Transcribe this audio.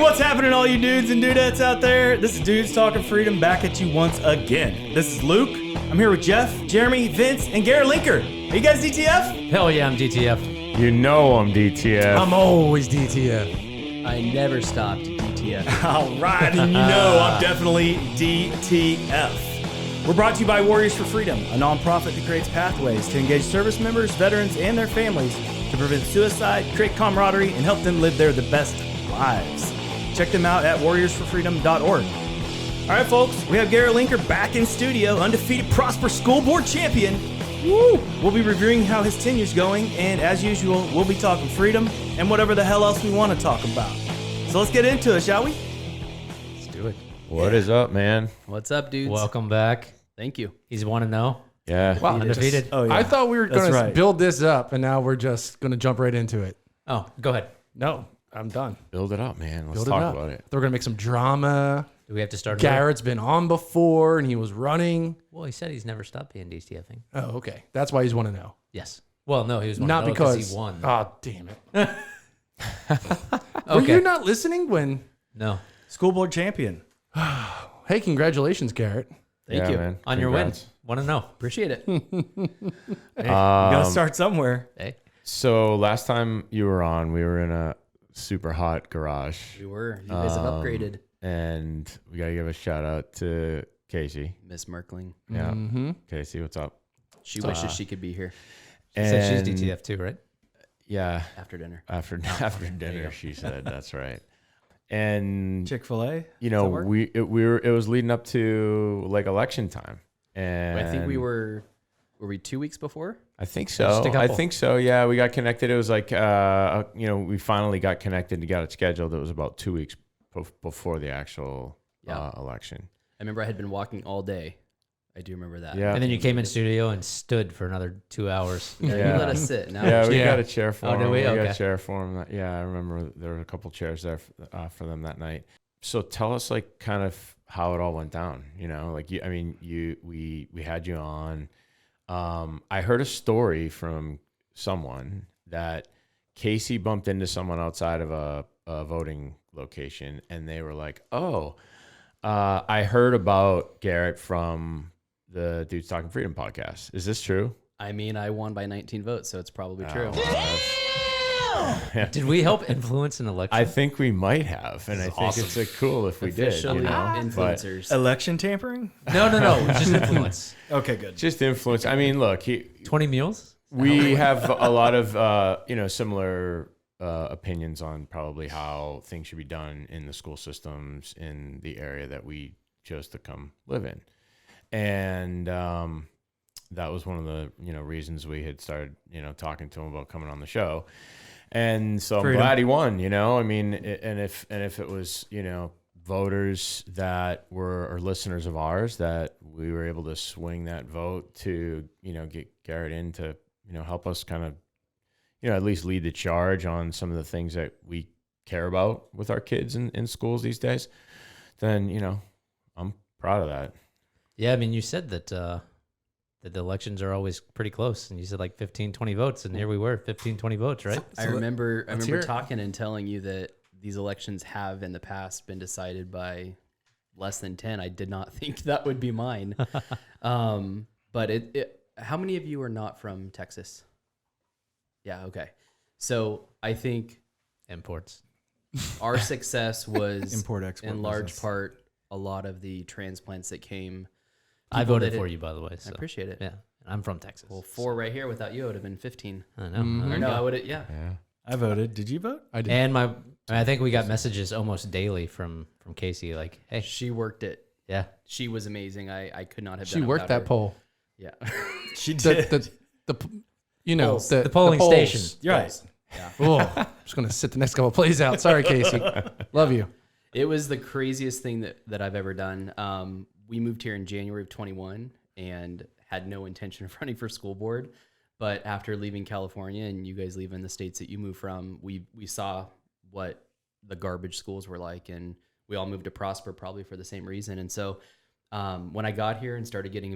what's happening, all you dudes and dudettes out there? This is Dudes Talking Freedom back at you once again. This is Luke. I'm here with Jeff, Jeremy, Vince, and Garrett Linker. Are you guys DTF? Hell yeah, I'm DTF. You know I'm DTF. Um, I'm always DTF. I never stopped DTF. All right, and you know I'm definitely DTF. We're brought to you by Warriors for Freedom, a nonprofit that creates pathways to engage service members, veterans, and their families to prevent suicide, create camaraderie, and help them live their the best lives. Check them out at warriorsforfreedom.org. All right, folks, we have Garrett Linker back in studio, undefeated Prosper School Board champion. Woo! We'll be reviewing how his tenure's going, and as usual, we'll be talking freedom and whatever the hell else we want to talk about. So let's get into it, shall we? Let's do it. What is up, man? What's up, dudes? Welcome back. Thank you. He's one to know. Yeah. Wow. Undefeated. Oh yeah. I thought we were That's going right. to build this up, and now we're just going to jump right into it. Oh, go ahead. No, I'm done. Build it up, man. Let's Build talk it up. about it. They're going to make some drama. Do we have to start? over? Garrett's been on before, and he was running. Well, he said he's never stopped being DTFing. Oh, okay. That's why he's one to know. Yes. Well, no, he was one Not to know because he won. Oh, damn it. Were okay. you not listening when? no. School board champion. Hey, congratulations, Garrett. Thank Yeah, you man. on your win. Congrats. Want to know? Appreciate it. You gotta Um, start somewhere. hey, Uh, So last time you were on, we were in a super hot garage, Um, We were. You guys have upgraded. and we gotta give a shout out to Casey. Miss Merkling. Mm-hmm. Yeah. Casey, what's up? She wishes she could be here she said And- she's DTF too, right? Yeah. after dinner. After after dinner, she said. That's right. And Chick fil A. you know, we it, we were it was leading up to like election time, and I think we were. Were we two weeks before? I think so. a I couple. think so. Yeah, we got connected. It was like, uh, you know, we finally got connected and got it scheduled. It was about two weeks bef- before the actual Yeah. uh, election. I remember I had been walking all day. I do remember that. Yeah. And then you came in studio and stood for another two hours. Yeah, Yeah. You let us sit. Now yeah, we Yeah. got a chair for Oh, did him. we? We, got Okay. a chair for him. Yeah, I remember there were a couple chairs there for, uh, for them that night. So tell us, like, kind of how it all went down. You know, like, you, I mean, you, we, we had you on. Um, I heard a story from someone that Casey bumped into someone outside of a, a voting location, and they were like, "Oh, uh, I heard about Garrett from the Dudes Talking Freedom podcast. Is this true?" I mean, I won by 19 votes, so it's probably true. Oh, that's- Did we help influence an election? I think we might have, and I think it's like, cool if we did. Officially You know? But influencers. Election tampering? no, no, no. Just influence. Okay, good. just influence. I mean, look, he, Twenty mules. we have a lot of uh, you know similar uh, opinions on probably how things should be done in the school systems in the area that we chose to come live in, and um, that was one of the you know reasons we had started you know talking to him about coming on the show, and so I'm Freedom. glad he won. You know, I mean, i- and if and if it was you know voters that were or listeners of ours that we were able to swing that vote to you know get Garrett in to you know help us kind of you know at least lead the charge on some of the things that we care about with our kids in, in schools these days then you know i'm proud of that Yeah, I mean, you said that uh, that the elections are always pretty close, and you said like 15, 20 votes, and here we were, 15, 20 votes, right? I remember. I hear remember it. talking and telling you that these elections have in the past been decided by less than ten. I did not think that would be mine. um, but it, it. How many of you are not from Texas? Yeah. Okay. So I think Imports. our success was Import, export in large business. part a lot of the transplants that came. I People voted did it. for you, by the way. So. I appreciate it. Yeah, and I'm from Texas. Well, four right here without you it would have been fifteen. I know. Or there you no, Mm-hmm. I go. would have. Yeah. yeah I voted. Did you vote? I did. And my, I, mean, I think we got messages almost daily from from Casey, like, "Hey, She worked it. yeah, She was amazing. I, I could not have. She done it worked without that her. poll. Yeah. She The, did. the, the, p- you know, Polls. the, The polling polls. station. You're right. Oh, I'm just going to sit the next couple of plays out. Sorry, Casey. Love you. It was the craziest thing that, that I've ever done. Um, we moved here in January of 21 and had no intention of running for school board. But after leaving California and you guys leaving the states that you moved from, we, we saw what the garbage schools were like. And we all moved to Prosper probably for the same reason. And so um, when I got here and started getting